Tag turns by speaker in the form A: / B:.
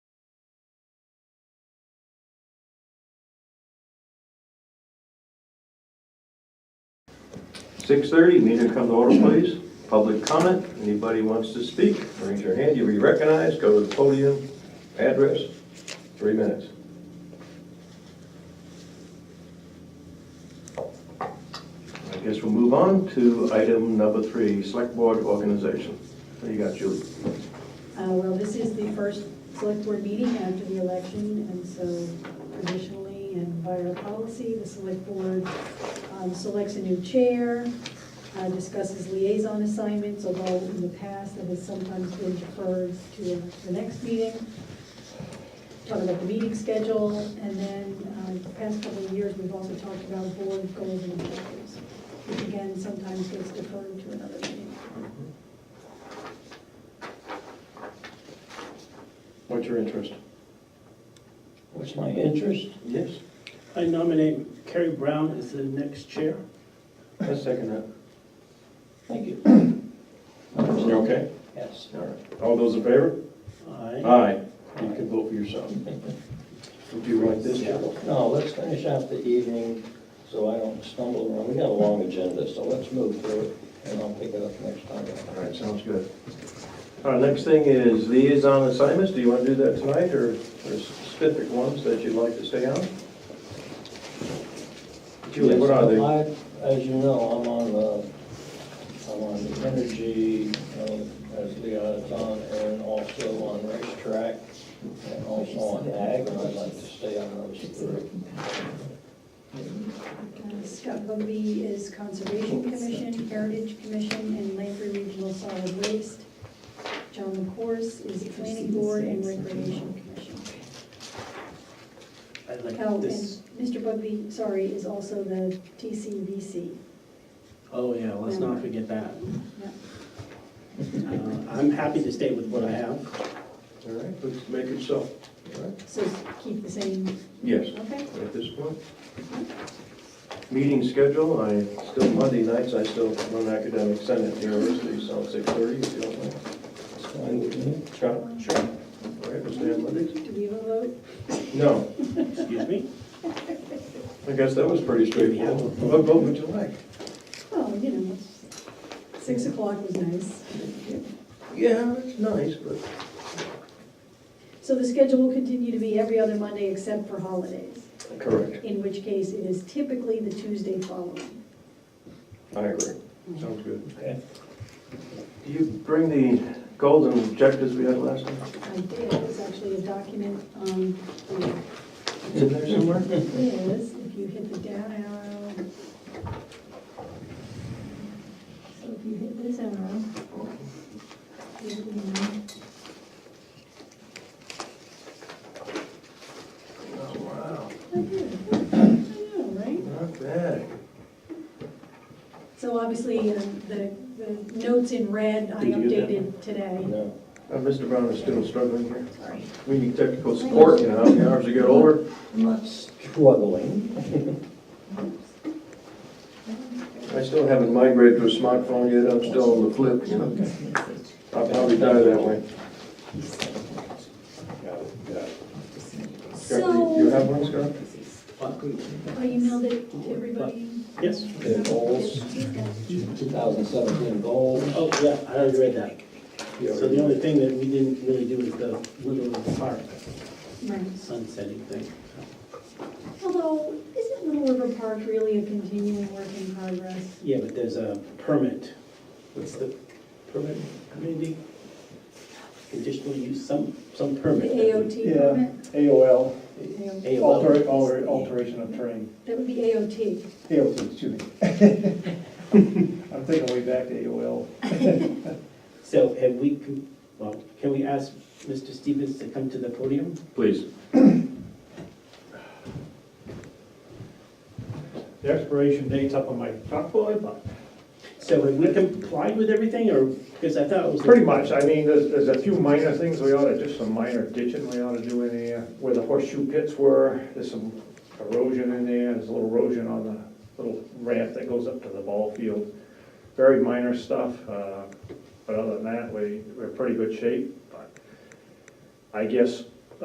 A: 6:30, meeting come to order, please. Public comment, anybody wants to speak, raise your hand, you'll be recognized, go to the podium, address, three minutes. I guess we'll move on to item number three, select board organization. What do you got, Julie?
B: Uh, Well, this is the first select board meeting after the election, and so traditionally and by our policy, the select board um, selects a new chair, uh, discusses liaison assignments, although in the past that has sometimes been deferred to the next meeting. Talk about the meeting schedule, and then um, the past couple of years, we've also talked about board goals and objectives, which again sometimes gets deferred to another meeting.
A: What's your interest?
C: What's my interest?
A: Yes.
C: I nominate Kerry Brown as the next chair.
A: I second that.
C: Thank you.
A: You're okay?
C: Yes.
A: All right. All those in favor?
C: Aye.
A: Aye. You can vote for yourself. Would you like this, Joe?
D: No, let's finish off the evening so I don't stumble around. We got a long agenda, so let's move through it and I'll pick it up next time.
A: All right, sounds good. All right, next thing is liaison assignments. Do you want to do that tonight, or there's specific ones that you'd like to stay on? Julie, what are they?
D: Yes, I- As you know, I'm on the, I'm on the energy, uh, as liaison, and also on racetrack, and also on ag, and I'd like to stay on those three.
B: Uh, Scott Bugby is Conservation Commission, Heritage Commission, and Lamprey Regional Solid Waste. John McCourse is Planning Board and Recreation Commission.
C: I
B: Oh,
C: like
B: and
C: this.
B: Mr. Bugby, sorry, is also the TCVC.
C: Oh, yeah, let's not forget that.
B: Yeah.
C: Uh, I'm happy to stay with what I have.
A: All right, let's make it so. All right.
B: So keep the same,
A: Yes,
B: okay?
A: at this point. Meeting schedule, I, still Monday nights, I still run academic senate at the university, so six thirty, if you don't mind.
D: It's fine with me.
A: Chuck? Sure. All right, we'll stay on Mondays?
B: Do we have a vote?
A: No,
C: Excuse me?
A: I guess that was pretty straightforward. What vote would you like?
B: Oh, you know, six o'clock was nice.
A: Yeah, it's nice, but.
B: So the schedule will continue to be every other Monday except for holidays,
A: Correct,
B: in which case it is typically the Tuesday following.
A: I agree. Sounds good.
D: Okay.
A: Do you bring the goals and objectives we had last time?
B: I did, it's actually a document, um, it
A: It's in there somewhere?
B: is, if you hit the down arrow. So if you hit this arrow. Oh, you can-
A: Oh, wow,
B: I did, I know, right?
A: not bad.
B: So obviously, um, the, the notes in red, I
A: Did you get that
B: updated today.
D: No.
A: Uh, Mr. Brown is still struggling here.
B: Sorry.
A: We need technical support, you know, the hours you get older.
D: I'm not struggling.
A: I still haven't migrated to a smartphone yet, I'm still on the flip, you know. I'll probably die that way. Scott, do you- you
B: So,
A: have one, Scott?
C: What?
B: I emailed it to everybody.
C: Yes?
D: The goals, 2017 goals.
C: Oh, yeah, I already read that.
A: Yeah.
C: So the only thing that we didn't really do is the Little Park
B: Right.
C: sunsetting thing.
B: Although, isn't Little River Park really a continuing work in progress?
C: Yeah, but there's a permit. What's the permit, community? Conditional use, some, some
B: The
C: permit. that we-
B: AOT
E: Yeah.
B: permit?
E: AOL,
B: AOT.
C: AOL.
E: alter- alter- alteration of terrain,
B: That would be AOT.
E: AOT, excuse me. I'm thinking way back to AOL.
C: So have we, con- well, can we ask Mr. Stevens to come to the podium?
A: Please.
E: The expiration date's up on my chalkboard, but
C: So have we complied with everything, or, because I thought it was.
E: pretty much, I mean, there's, there's a few minor things we ought to, just some minor ditching we ought to do in there, where the horseshoe pits were, there's some erosion in there, there's a little erosion on the little ramp that goes up to the ball field. Very minor stuff, uh, but other than that, we, we're in pretty good shape, but I guess